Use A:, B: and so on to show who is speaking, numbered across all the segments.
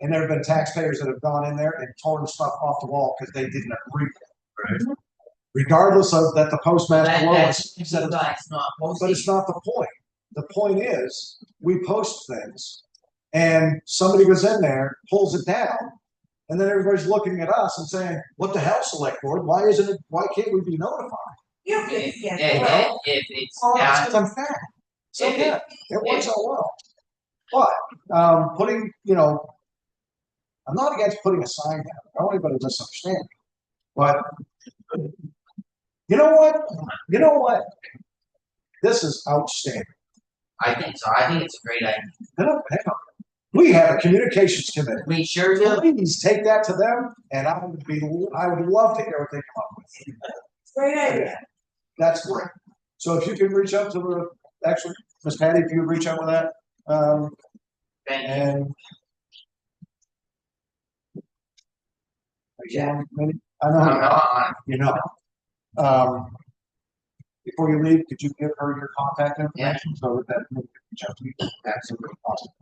A: And there have been taxpayers that have gone in there and torn stuff off the wall because they didn't agree. with it. Regardless of that the postmaster
B: Mm-hmm. That-
A: was,
B: that's- that's not
A: but it's
B: posting.
A: not the point. The point is, we post things and somebody goes in there, pulls it down. And then everybody's looking at us and saying, what the hell, select board? Why isn't it, why can't we be notified?
C: You can, yeah.
B: And
C: well,
B: then if it's
A: Oh,
B: not,
A: that's unfair. So,
B: If it-
A: yeah, it works out well. But, um, putting, you know, I'm not against putting a sign down, I don't want anybody to misunderstand. me. But, you know what, you know what? This is outstanding.
B: I think so, I think it's a great idea.
A: Hang on, hang on. We have a communications committee.
B: We sure do,
A: Please take that to them, and I would be, I would love to hear what they come up with.
C: Great idea.
A: That's great. So if you can reach out to the, actually, Miss Patty, if you reach out with that, um,
B: thank you.
A: and.
B: Yeah.
A: Maybe- I know,
B: I'm
A: you know,
B: not on,
A: you know. Um, before you leave, could you give her your contact information so that that can reach out to you? Absolutely possible.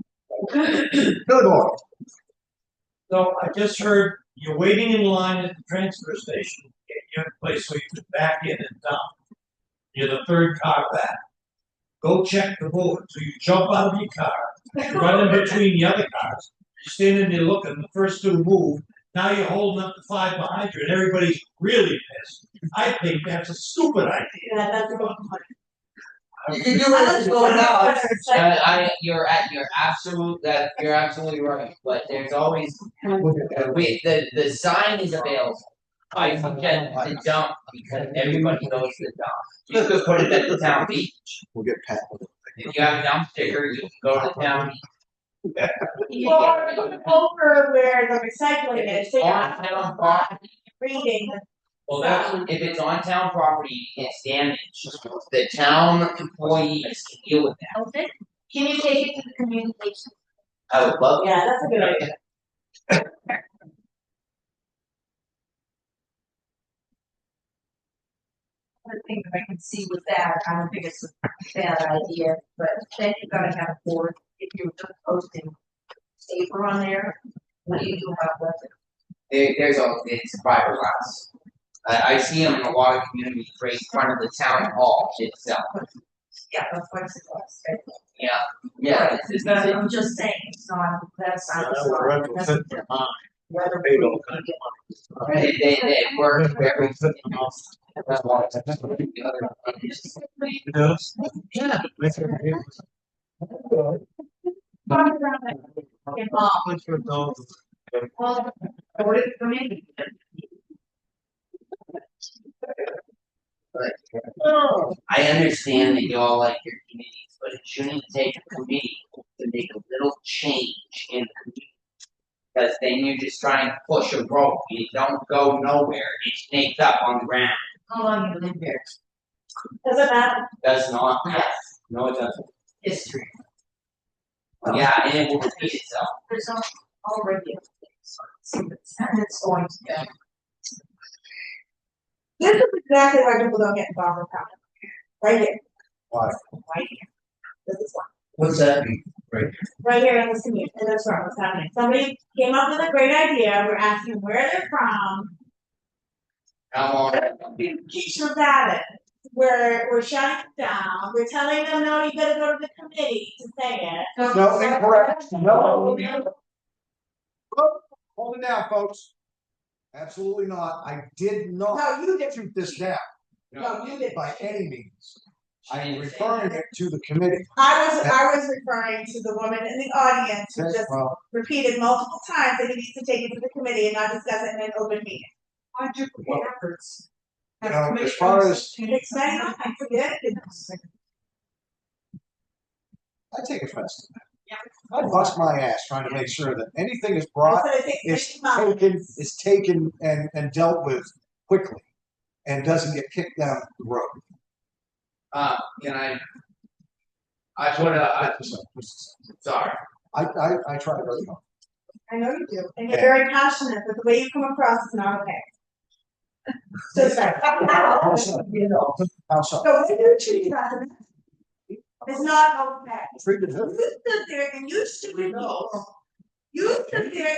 A: Good boy.
D: So I just heard you're waiting in line at the transfer station, to get your place where you can back in and down. You're the third car back. Go check the board, so you jump out of your car, you run in between the other cars, you're standing there looking, the first two move, now you're holding up the five behind you, and everybody's really pissed. I think that's a stupid idea.
C: Yeah, that's about
B: You can do what is going on. Uh, I, you're at, you're absolute, that, you're absolutely right, but there's always, we, the, the sign is available. I forget the dump, because everybody knows the dump, you could put it at the town beach,
A: We'll get Pat. with it.
B: if you have a dump sticker, you can go to town beach.
C: Or over where the recycling is, so you're
B: On town property,
C: reading the
B: well, that's, if it's on town property, it's damaged, the town employees can deal with that,
E: Elton, can you take it to the communication?
B: I would love.
C: Yeah, that's a good idea.
E: The thing that I can see with that, I don't think it's a bad idea, but then you gotta have a board, if you're just posting paper on there, what do you do about that?
B: There, there's a, it's fiberglass. I, I see them in a lot of communities, right in front of the town hall itself.
E: Yeah, that's what it's about.
B: Yeah, yeah, it's, it's not,
E: I'm just saying, it's not, that's not.
D: Yeah, we're up to
E: that's
D: fifty
E: different.
D: miles.
E: Whether
D: They
E: we
D: don't
E: can get-
B: they, they, they work very.
D: Yeah.
E: involved. Well, what it for me?
B: I understand that you all like your committees, but it shouldn't take a committee to make a little change in the community. Cause then you're just trying to push a rope, you don't go nowhere, it snakes up on the ground,
E: How long you been here?
C: Doesn't matter,
B: does not,
E: Yes,
B: no, it doesn't.
E: history,
B: Yeah, and it will repeat itself.
E: there's al- already. a place, so it's- And it's going to be.
C: this is exactly why people don't get involved with town, right here,
A: Why?
C: right here. This is why,
B: What's that?
C: right here in this community, and that's where it's happening, somebody came up with a great idea, we're asking where they're from,
B: How long?
C: Keisha's at it. We're, we're shutting it down, we're telling them, no, you gotta go to the committee to say it.
A: No, incorrect, no. Oh, Hold it down, folks. Absolutely not. I did not.
C: No, you did.
A: Shoot this down
C: No, you did.
A: by any means. I am
B: She didn't say
A: referring it to the committee.
C: I was, I was referring to the woman in the audience who
A: Okay,
C: just
A: well,
C: repeated multiple times that you need to take it to the committee and not discuss it in an open meeting.
A: Well, Now, as far as,
C: It's not, enough, I forget, it's,
A: I take offense to that. I bust my ass trying to make sure that anything is brought,
C: I think
A: is
C: it's not.
A: taken, is taken and, and dealt with quickly and doesn't get kicked down the road.
B: Uh, can I? I put a, I, sorry,
A: I, I, I try really hard.
C: I know you do, and you're very passionate, but the way you come across is not okay. So sorry.
A: How so? How so?
C: So when you treat us, it's not okay.
A: Treated her.
C: You stood there and you stood in those You sit there